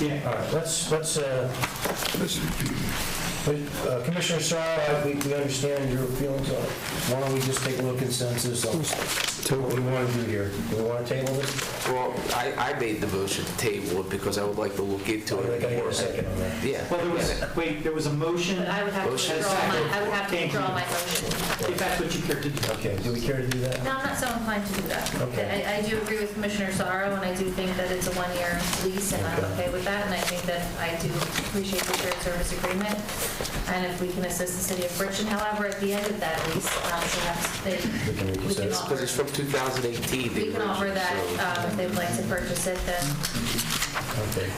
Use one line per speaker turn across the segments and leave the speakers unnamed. Yeah.
All right, let's, let's, uh, uh, Commissioner Sorrow, I- we we understand your feelings on it. Why don't we just take a little consensus on what we want to do here? Do we want to table this?
Well, I, I made the motion to table it because I would like to look into
I
it.
gotta get
more.
a second on that.
Yeah.
Well, there
yeah.
was, wait, there was a motion,
But I would have to
Motion is
withdraw my,
second.
I would have to
Thank you.
withdraw my motion.
if that's what you care to do.
Okay, do we care to do that?
No, I'm not so inclined to do that.
Okay.
I, I do agree with Commissioner Sorrow, and I do think that it's a one-year lease, and I'm okay with that, and I think that I do appreciate the shared service agreement, and if we can assist the city of Bridgeton, however, at the end of that lease, um, perhaps they,
We can
we
reconsider.
can
Because
offer,
it's from 2018.
we can offer
so-
that, um, if they'd like to purchase it, then
Okay.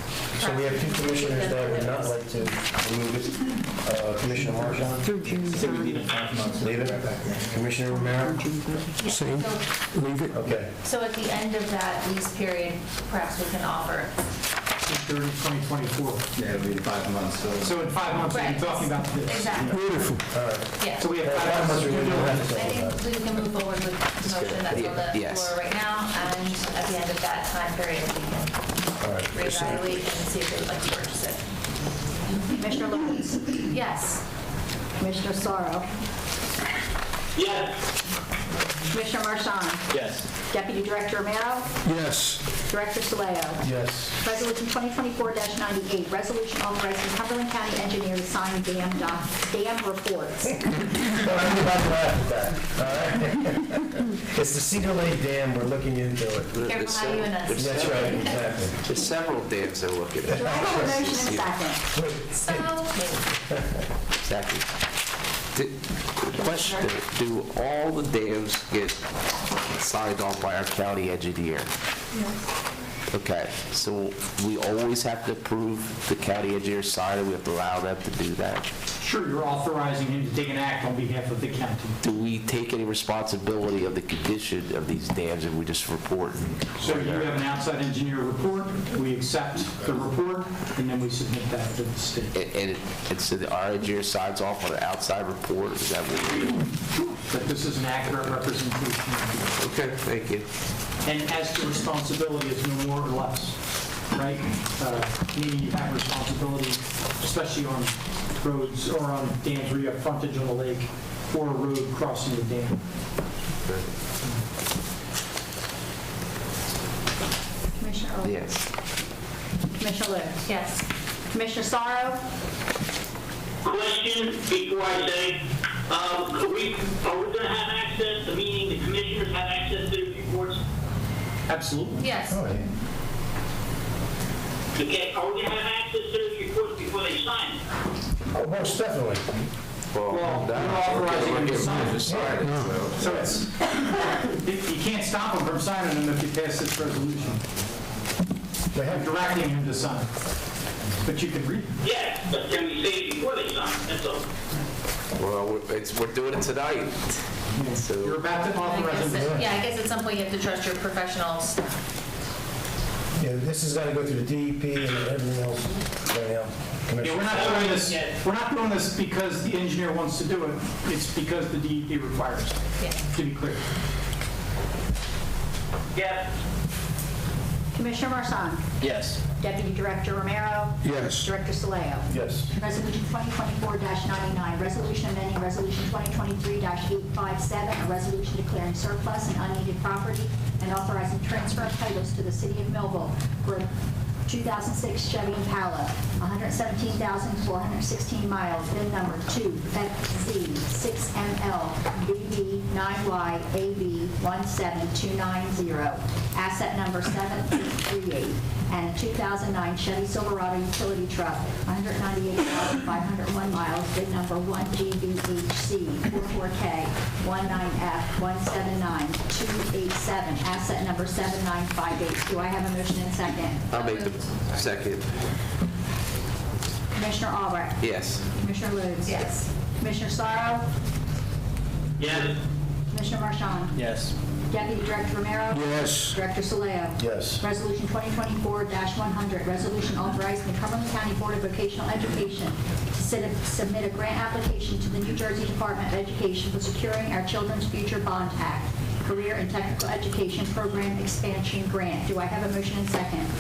So we have two commissioners that would not like to remove it. Uh, Commissioner Marchand,
Through June
So we need a
30.
five months.
leave it. Commissioner Romero?
June 30.
Same, leave it.
Okay.
So at the end of that lease period, perhaps we can offer.
June 30, 2024.
Yeah, it'll be five months, so.
So in five months, we'll be
Right.
talking about this.
Exactly,
Beautiful.
yeah.
So we have
Well,
five
that was
months to
really
do
good.
it.
I think we can move forward with the motion that's on the
Yes.
floor right now, and at the end of that time period, we can
All right.
reevaluate and see if they would like to purchase it.
Commissioner Lawrence,
Yes.
Commissioner Sorrow,
Yes.
Commissioner Marchand,
Yes.
Deputy Director Romero,
Yes,
Director Soleo.
Yes.
Resolution 2024-98, resolution authorizing Cumberland County Engineer to sign dam doc, dam reports.
Well, everybody laughed at that, all right? It's the Cedar Lake Dam, we're looking into it.
There's
Careful how you
several-
and us.
That's right, exactly.
There's several dams I'm looking
Do I
at.
have a motion and second?
So,
Exactly. Did- Question, do all the dams get signed off by our county engineer? Okay, so we always have to approve the county engineer sign, and we have to allow them to do that?
Sure, you're authorizing him to take an act on behalf of the county.
Do we take any responsibility of the condition of these dams if we just report?
So you have an outside engineer report, we accept the report, and then we submit that to the state.
And, and it- and so the our engineer signs off on an outside report, is that what we do?
But this is an accurate representation. of
Okay, thank you.
it. And as to responsibility, it's no more or less, right? Uh, Meaning you have responsibility, especially on roads or on dams where you have frontage on the lake or a road crossing the dam.
Commissioner Early.
Yes.
Commissioner Lewis.
yes.
Commissioner Sorrow,
question before I say, um, are we, are we gonna have access, meaning the commissioners have access to the reports?
Absolutely.
Yes.
Oh, yeah.
Okay, are we gonna have access to those reports before they sign?
Oh, most definitely.
Well, you're authorizing him to sign. So it's, you can't stop him from signing them if you pass this resolution.
They
I'm
have,
directing him to sign. But you can read.
Yes, but can we say it before they sign, that's all.
Well, we're- it's, we're doing it tonight.
You're
So,
about to
I
authorize
guess
him.
it- Yeah, I guess at some point you have to trust your professionals.
yeah, this has got to go through the DEP and everything else right now.
Yeah, we're
Commissioner.
not doing this, we're not doing this because the engineer wants to do it. It's because the DEP requires it,
Yeah.
to be clear.
Yes.
Commissioner Marchand. Yes. Deputy Director Romero,
yes.
Director Soleo.
Yes.
Resolution 2024-99, resolution amending Resolution 2023-857, a resolution declaring surplus and unneeded property and authorizing transfer of titles to the city of Millville for 2006 Chevy Impala, 117,416 miles, VIN number oh 2FZ6ML BB9YAB17290, asset number 738, and a 2009 Chevy Silverado utility truck, 198,501 miles, VIN number 1GBHC44K19F179287, asset number 7958. Do I have a motion and second?
I'll make the second.
Commissioner Albrecht?
Yes.
Commissioner Ludes?
Yes.
Commissioner Sorrow?
Yes.
Commissioner Marchand?
Yes.
Deputy Director Romero?
Yes.
Director Soleo?
Yes.
Resolution 2024-100, resolution authorizing the Cumberland County Board of Vocational Education to sit- submit a grant application to the New Jersey Department of Education for securing our Children's Future Bond Act Career and Technical Education Program Expansion Grant. Do I have a motion and second?